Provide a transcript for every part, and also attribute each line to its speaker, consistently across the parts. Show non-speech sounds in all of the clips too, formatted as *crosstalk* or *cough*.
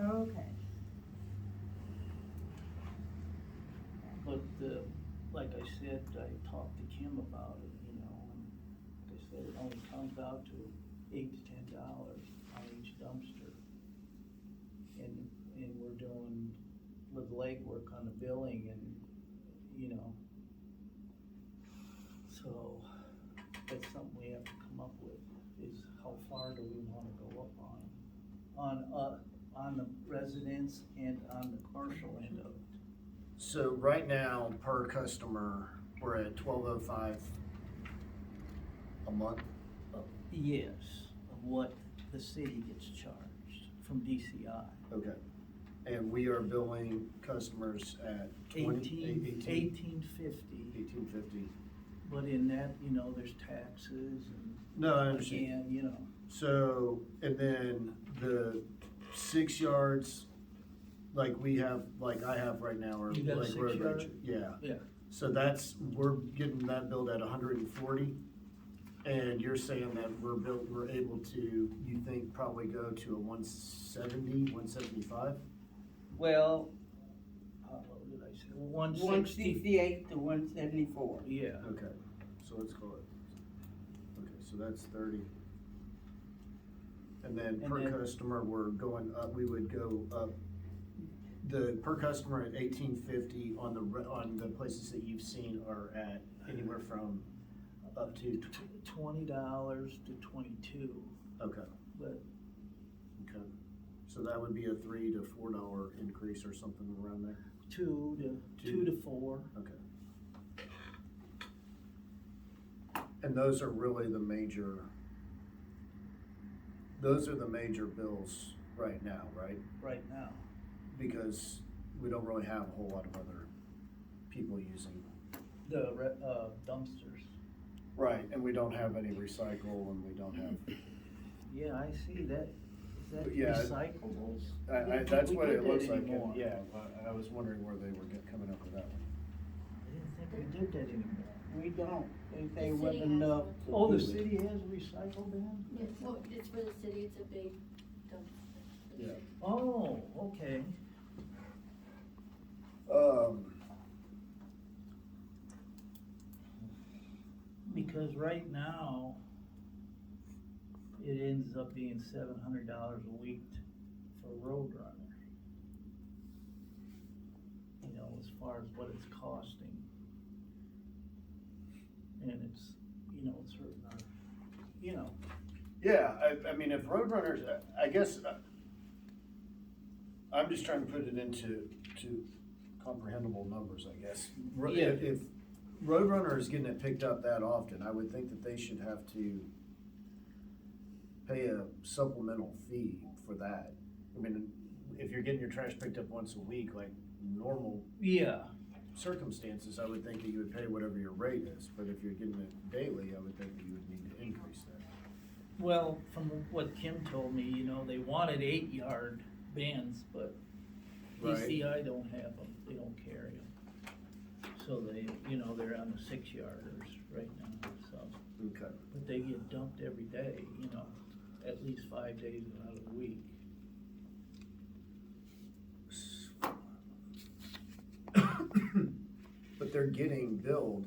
Speaker 1: Okay.
Speaker 2: But, uh, like I said, I talked to Kim about it, you know, and like I said, it only comes out to eight to ten dollars on each dumpster. And, and we're doing little legwork on the billing and, you know. So, that's something we have to come up with, is how far do we wanna go up on? On, uh, on the residents and on the commercial end of it.
Speaker 3: So right now, per customer, we're at twelve oh five a month.
Speaker 2: Yes, of what the city gets charged from DCI.
Speaker 3: Okay. And we are billing customers at twenty,
Speaker 2: Eighteen,
Speaker 3: eighteen, eighteen
Speaker 2: eighteen fifty,
Speaker 3: fifty.
Speaker 2: but in that, you know, there's taxes and.
Speaker 3: No, I understand.
Speaker 2: And, you know,
Speaker 3: So, and then the six yards, like we have, like I have right now, or
Speaker 2: You got a
Speaker 3: like
Speaker 2: six
Speaker 3: road
Speaker 2: yard?
Speaker 3: rage. Yeah.
Speaker 2: Yeah.
Speaker 3: So that's, we're getting that billed at hundred and forty. And you're saying that we're built, we're able to, you think probably go to a 170, 175?
Speaker 2: well, uh, what did I say, one
Speaker 1: One
Speaker 2: sixty,
Speaker 1: sixty-eight to one seventy-four.
Speaker 2: yeah,
Speaker 3: Okay, so let's call it, okay, so that's thirty. And then
Speaker 2: And
Speaker 3: per
Speaker 2: then-
Speaker 3: customer, we're going up, we would go up, the per customer at eighteen fifty on the, re- on the places that you've seen are at anywhere from up to, tw-
Speaker 2: tw- twenty dollars to twenty-two,
Speaker 3: okay,
Speaker 2: but,
Speaker 3: okay. So that would be a three to four dollar increase or something around there,
Speaker 2: two to, two
Speaker 3: Two.
Speaker 2: to four.
Speaker 3: okay. And those are really the major, those are the major bills right now, right?
Speaker 2: right now.
Speaker 3: Because we don't really have a whole lot of other people using.
Speaker 2: The, re- uh, dumpsters.
Speaker 3: Right, and we don't have any recycle and we don't have,
Speaker 2: Yeah, I see that, is that
Speaker 3: But yeah,
Speaker 2: recyclables?
Speaker 3: I, I,
Speaker 2: Didn't
Speaker 3: that's
Speaker 2: think
Speaker 3: what
Speaker 2: we
Speaker 3: it
Speaker 2: did
Speaker 3: looks
Speaker 2: that
Speaker 3: like,
Speaker 2: anymore.
Speaker 3: and- yeah, I- I was wondering where they were get- coming up with that one.
Speaker 2: I didn't think we did that anymore.
Speaker 1: We don't, they say
Speaker 4: The
Speaker 1: it wasn't
Speaker 4: city has
Speaker 1: enough.
Speaker 4: one.
Speaker 3: Oh,
Speaker 2: Oh,
Speaker 3: the
Speaker 2: the city has recycled them?
Speaker 4: It's, for- it's for the city, it's a big dump. for the
Speaker 3: Yeah.
Speaker 4: city.
Speaker 2: Oh, okay.
Speaker 3: Um,
Speaker 2: Because right now, it ends up being seven hundred dollars a week for Road Runner. You know, as far as what it's costing. And it's, you know, it's hurting our, you know,
Speaker 3: yeah, I, I mean, if Roadrunners, I guess, uh, I'm just trying to put it into, to comprehensible numbers, I guess. Ro-
Speaker 2: Yeah.
Speaker 3: If, if Roadrunner is getting it picked up that often, I would think that they should have to pay a supplemental fee for that. I mean, if you're getting your trash picked up once a week, like normal
Speaker 2: yeah,
Speaker 3: circumstances, I would think that you would pay whatever your rate is, but if you're getting it daily, I would think that you would need to increase that.
Speaker 2: Well, from what Kim told me, you know, they wanted eight yard bins, but
Speaker 3: Right.
Speaker 2: DCI don't have them, they don't carry them. So they, you know, they're on the six yarders right now, so,
Speaker 3: Okay.
Speaker 2: but they get dumped every day, you know, at least five days out of the week.
Speaker 3: *coughs* But they're getting billed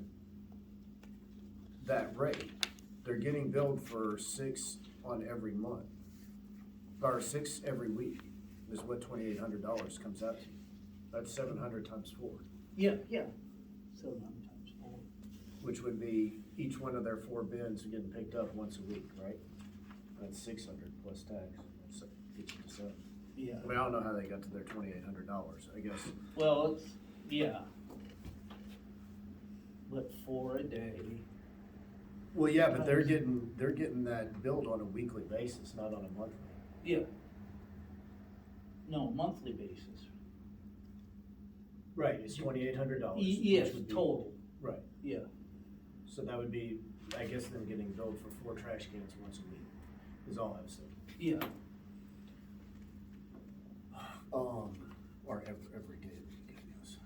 Speaker 3: that rate. They're getting billed for six on every month, or six every week is what twenty-eight hundred dollars comes out to. That's seven hundred times four,
Speaker 2: Yeah, yeah. So sometimes, four.
Speaker 3: which would be each one of their four bins are getting picked up once a week, right? That's six hundred plus tax, so gets you to seven.
Speaker 2: yeah,
Speaker 3: I mean, I don't know how they got to their twenty-eight hundred dollars, I guess.
Speaker 2: well, it's, yeah. But four a day,
Speaker 3: Well, yeah, but they're getting, they're getting that billed on a weekly basis, not on a monthly.
Speaker 2: yeah. No, monthly basis,
Speaker 3: Right, it's twenty-eight hundred dollars.
Speaker 2: Y- Yes, total,
Speaker 3: Right,
Speaker 2: yeah,
Speaker 3: so that would be, I guess, them getting billed for four trash cans once a week, is all I was saying.
Speaker 2: yeah.
Speaker 3: Um, or every, every day. of the week, I guess.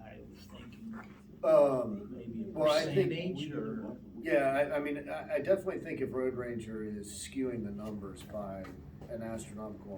Speaker 2: I was thinking
Speaker 3: Um,
Speaker 2: maybe a
Speaker 3: Well, I think-
Speaker 2: percentage or,
Speaker 3: yeah, I, I mean, I, I definitely think if Road Ranger is skewing the numbers by an astronomical